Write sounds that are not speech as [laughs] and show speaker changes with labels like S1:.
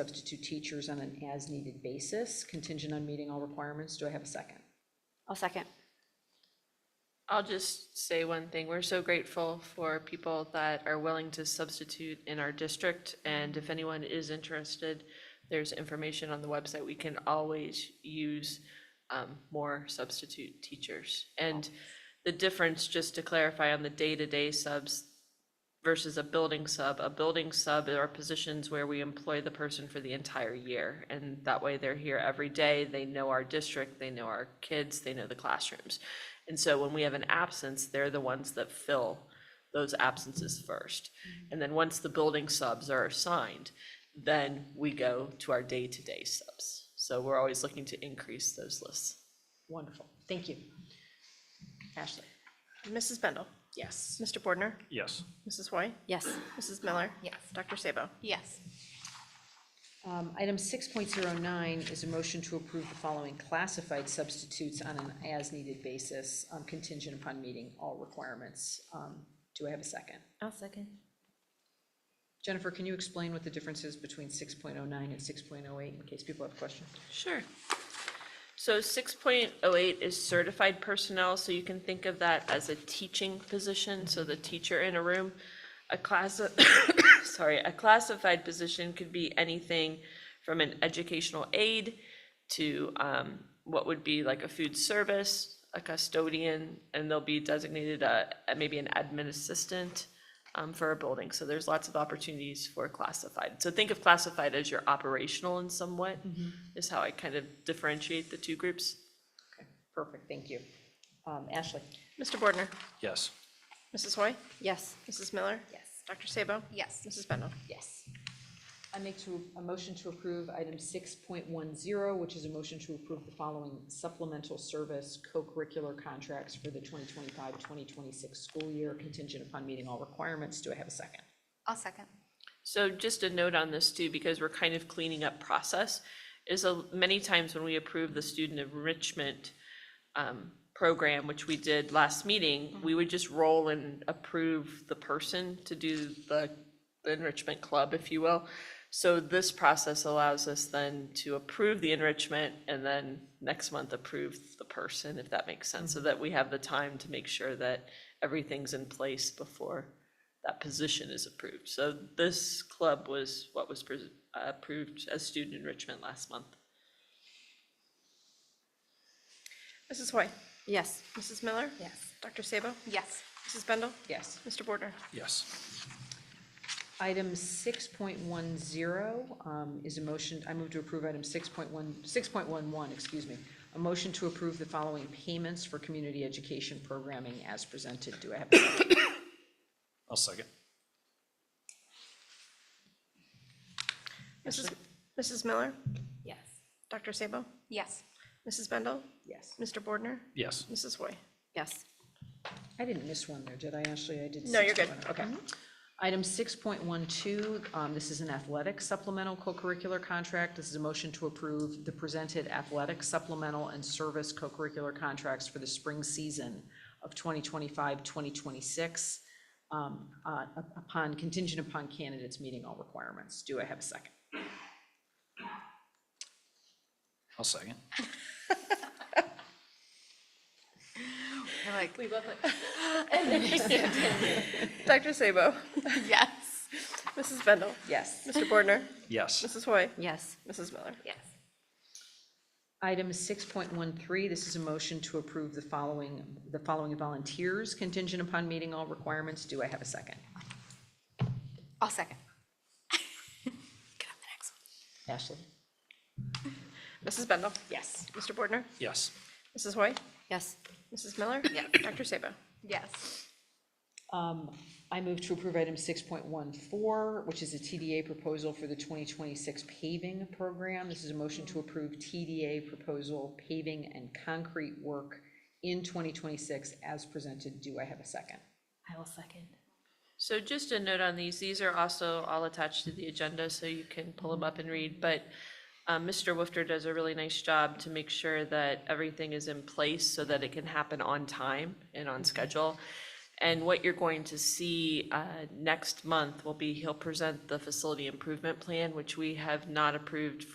S1: substitute teachers on an as-needed basis, contingent on meeting all requirements. Do I have a second?
S2: I'll second.
S3: I'll just say one thing. We're so grateful for people that are willing to substitute in our district. And if anyone is interested, there's information on the website. We can always use um, more substitute teachers. And the difference, just to clarify, on the day-to-day subs versus a building sub, a building sub are positions where we employ the person for the entire year. And that way they're here every day. They know our district, they know our kids, they know the classrooms. And so when we have an absence, they're the ones that fill those absences first.
S4: Mm-hmm.
S3: And then once the building subs are assigned, then we go to our day-to-day subs. So we're always looking to increase those lists.
S1: Wonderful. Thank you. Ashley?
S4: Mrs. Bendel,
S1: Yes.
S4: Mr. Bordner,
S5: Yes,
S4: Mrs. Hoy,
S2: Yes.
S4: Mrs. Miller,
S2: Yes.
S4: Dr. Sabo.
S2: Yes.
S1: Um, Item 6.09 is a motion to approve the following classified substitutes on an as-needed basis, um, contingent upon meeting all requirements. Um, Do I have a second?
S2: I'll second.
S1: Jennifer, can you explain what the difference is between 6.09 and 6.08 in case people have questions?
S3: Sure. So six point oh eight is certified personnel, so you can think of that as a teaching position, so the teacher in a room. A class, [coughs] sorry, a classified position could be anything from an educational aide to um, what would be like a food service, a custodian, and they'll be designated a, a- maybe an admin assistant um, for a building. So there's lots of opportunities for classified. So think of classified as your operational in somewhat, is how I kind of differentiate the two groups.
S1: Okay, Perfect, thank you. Um, Ashley?
S4: Mr. Bordner,
S5: yes,
S4: Mrs. Hoy,
S2: Yes.
S4: Mrs. Miller,
S2: Yes.
S4: Dr. Sabo,
S2: Yes.
S4: Mrs. Bendel.
S1: Yes. I make to, a motion to approve item six point one zero, which is a motion to approve the following supplemental service co-curricular contracts for the 2025-2026 school year contingent upon meeting all requirements. Do I have a second?
S2: I'll second.
S3: So just a note on this too, because we're kind of cleaning up process, is a, many times when we approve the student enrichment um, program, which we did last meeting, we would just roll and approve the person to do the the enrichment club, if you will. So this process allows us then to approve the enrichment and then next month approve the person, if that makes sense, so that we have the time to make sure that everything's in place before that position is approved. So this club was what was pres- uh, approved as student enrichment last month.
S4: Mrs. Hoy,
S2: Yes.
S4: Mrs. Miller,
S2: Yes.
S4: Dr. Sabo,
S2: Yes.
S4: Mrs. Bendel,
S1: Yes.
S4: Mr. Bordner.
S5: yes,
S1: Item six point one zero, um, is a motion, I move to approve item 6.1 6.11. excuse me. A motion to approve the following payments for community education programming as presented. Do I have a second?
S5: I'll second.
S4: Mrs. Mrs. Miller,
S2: Yes.
S4: Dr. Sabo,
S2: Yes.
S4: Mrs. Bendel,
S1: Yes.
S4: Mr. Bordner,
S5: Yes,
S4: Mrs. Hoy.
S2: Yes.
S1: I didn't miss one there, did I, Ashley? I did.
S4: No, you're good.
S1: 6.10. Okay. Mm-hmm. Item 6.12, um, this is an athletic supplemental co-curricular contract. This is a motion to approve the presented athletic supplemental and service co-curricular contracts for the spring season of 2025, 2026, um, uh, upon, contingent upon candidates meeting all requirements. Do I have a second?
S5: I'll second.
S2: You're like,
S3: We love it.
S4: Dr. Sabo,
S2: yes.
S4: Mrs. Bendel,
S1: Yes.
S4: Mr. Bordner,
S5: Yes,
S4: Mrs. Hoy,
S2: Yes.
S4: Mrs. Miller.
S2: Yes.
S1: Item 6.13, this is a motion to approve the following, the following volunteers contingent upon meeting all requirements. Do I have a second?
S2: I'll second. [laughs] Get on the next
S1: Ashley?
S4: Mrs. Bendel,
S1: Yes.
S4: Mr. Bordner,
S5: yes,
S4: Mrs. Hoy,
S2: one. Yes.
S4: Mrs. Miller,
S2: Yes.
S4: Dr. Sabo.
S2: Yes.
S1: Um, I move to approve item six point one four, which is a TDA proposal for the twenty twenty-six paving program. This is a motion to approve TDA proposal paving and concrete work in twenty twenty-six as presented. Do I have a second?
S2: I will second.
S3: So just a note on these, these are also all attached to the agenda, so you can pull them up and read, but um, Mr. Wifter does a really nice job to make Mm-hmm. sure that everything is in place so that it can happen on time and on schedule. And what you're going to see uh, next month will be, he'll present the facility improvement plan, which we have not approved